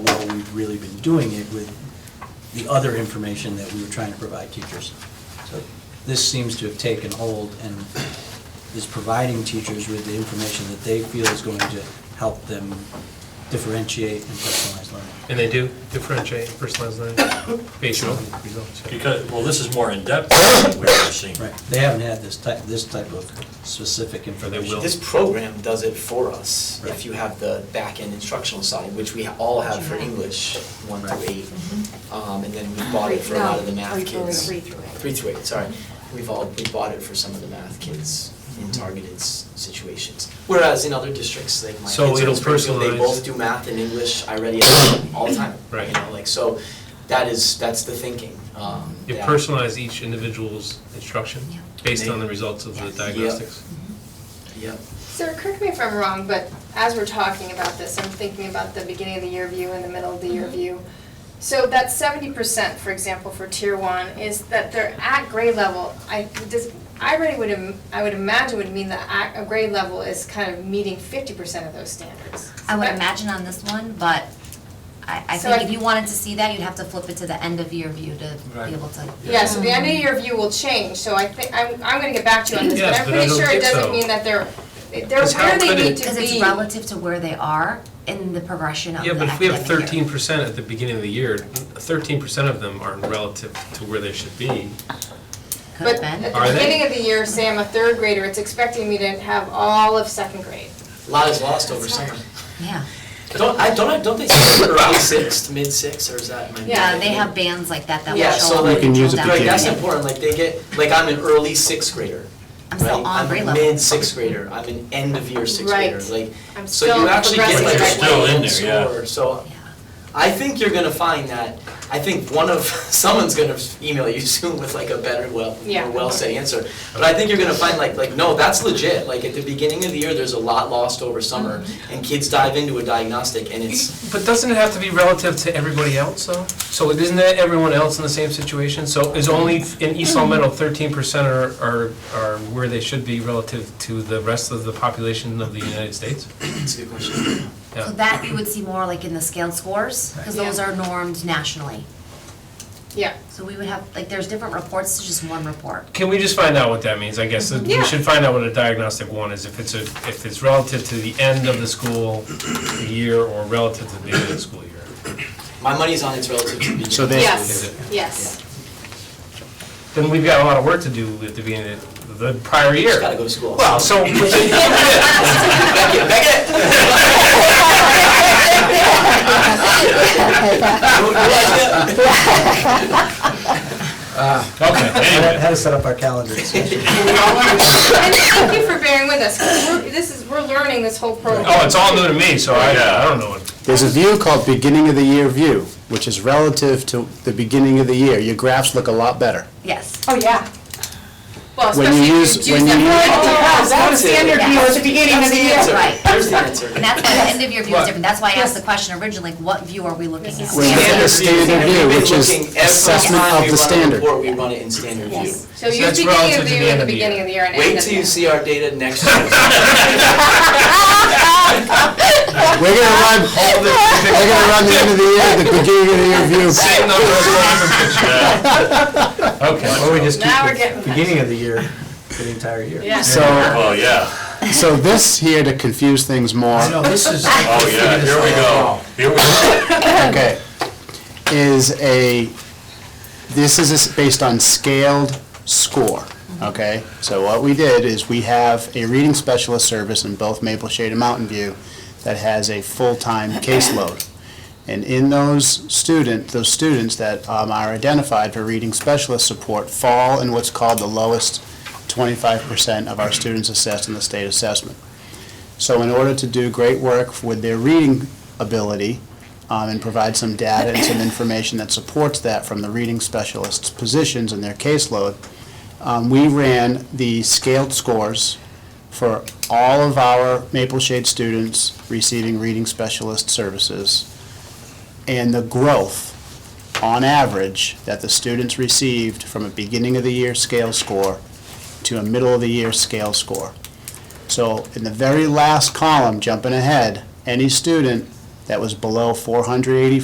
really been doing it with the other information that we were trying to provide teachers. So this seems to have taken hold and is providing teachers with the information that they feel is going to help them differentiate and personalize learning. And they do differentiate and personalize learning based on results. yeah. Because, well, this is more in-depth than we've ever seen. Right, they haven't had this type, this type of specific information. will. This program does it for us, Right. if you have the back-end instructional side, which we all have for English, one Right. through eight. Um, and then we bought it for a lot of the No, math Mm-hmm. three- or kids. three through eight. Three through eight, sorry. We've all, we bought it for some of the math kids Mm-hmm. in targeted s- situations. Whereas in other districts, like my kids So are it'll in Springfield, they personalize- both do math and English, I read it all the time. Right. You know, like, so that is, that's the thinking, um, You that- personalize each individual's instruction Yeah. based on the results of the Yeah. diagnostics. Yep. Sir, correct me if I'm wrong, but as we're talking about this, I'm thinking about the beginning of the year view and the middle of the Mm-hmm. year view. So that seventy percent, for example, for tier one, is that they're at grade level, I, does, I really would, im- I would imagine would mean that at a grade level is kind of meeting fifty percent of those standards. I would But- imagine on this one, but I, I So think I- if you wanted to see that, you'd have to flip it to the end of year view to Right. be able to. Yeah, so the end Mm. of year view will change, so I think, I'm, I'm gonna get back to you on this, but Yes, I'm but I pretty don't sure it think doesn't so. mean that they're, they're Because how where they could it- need to be. Because it's relative to where they are in the progression of the Yeah, but if we have academic year. thirteen percent at the beginning of the year, thirteen percent of them aren't relative to where they should be. Could have But uh, been. at Are the they? beginning of the year, say I'm a third grader, it's expecting me to have all of second grade. A lot is lost over summer. Yeah, Don't, I, don't, I- don't they say early sixth, mid sixth, or is that my? yeah, Uh, they have bands like that that will Yeah, so show up like- You and can drill use it down. to Like, that's Yeah. important, like, they get, like, I'm an early sixth grader, I'm right? still on grade level. I'm a mid sixth grader, I'm an end of year sixth Right. grader, like, I'm so you still actually get progressing like a right Still in full there, yeah. score, so Yeah. I think you're gonna find that, I think one of, someone's gonna email you soon with like a better, well, Yeah. more well-said answer. But I think you're gonna find like, like, no, that's legit, like, at the beginning of the year, there's a lot lost over summer, Mm-hmm. and kids dive into a diagnostic, and it's, But doesn't it have to be relative to everybody else, though? So isn't that everyone else in the same situation? So is only in East Long Meadow, thirteen percent are, are, are where they should be relative to the rest of the population of the United States? it's a good question. Yeah. So that you would see more like in the scaled scores, because Right. those Yeah. are normed nationally. Yeah. So we would have, like, there's different reports to just one report. Can we just find out what that means, I guess? Yeah. We should find out what a diagnostic one is, if it's a, if it's relative to the end of the school year or relative to the beginning of the school year. My money's on its relative to beginning. So they- Yes, yes. Then we've got a lot of work to do at the beginning of the prior year. Just gotta go to school. Well, so, Beck it, beck it. okay, How to- anyway. How to set up our calendars. And thank you for bearing with us, 'cause we're, this is, we're learning this whole program. Oh, it's all new to me, so I, I don't know what. There's a view called beginning of the year view, which is relative to the beginning of the year. Your graphs look a lot better. Yes. Oh, yeah. Well, when you especially if use- you when choose you use- that. That's not a standard view at the beginning of That's the the year. answer. Right. There's the answer. And that's why the end of year view is What? different. That's why I asked the question originally, like, what view are we looking This at? is When you Standard. get a standard We've view, been which looking every is assessment time of we the run a standard. report, we run it in standard view. Yes. So use that's beginning relative to of the the end year, of the the beginning year. of the year, and end Wait of the till year. you see our data next year. We're gonna run, we're gonna run the end of the year, the beginning of the year view. Same number of times. Okay. Or we just keep Now we're the getting- beginning of the year, for the entire year. Yeah. So, Oh, yeah, so this here to confuse things more. I know, this is. oh, yeah, here we go, here we go. Okay, is a, this is a s- based on scaled score, okay? So what we did is we have a reading specialist service in both Maple Shade and Mountain View that has a full-time caseload. And in those student, those students that um, are identified for reading specialist support fall in what's called the lowest twenty-five percent of our students assessed in the state assessment. So in order to do great work with their reading ability, um, and provide some data and some information that supports that from the reading specialists' positions and their caseload. Um, We ran the scaled scores for all of our Maple Shade students receiving reading specialist services and the growth on average that the students received from a beginning of the year scale score to a middle of the year scale score. So in the very last column, jumping ahead, any student that was below 480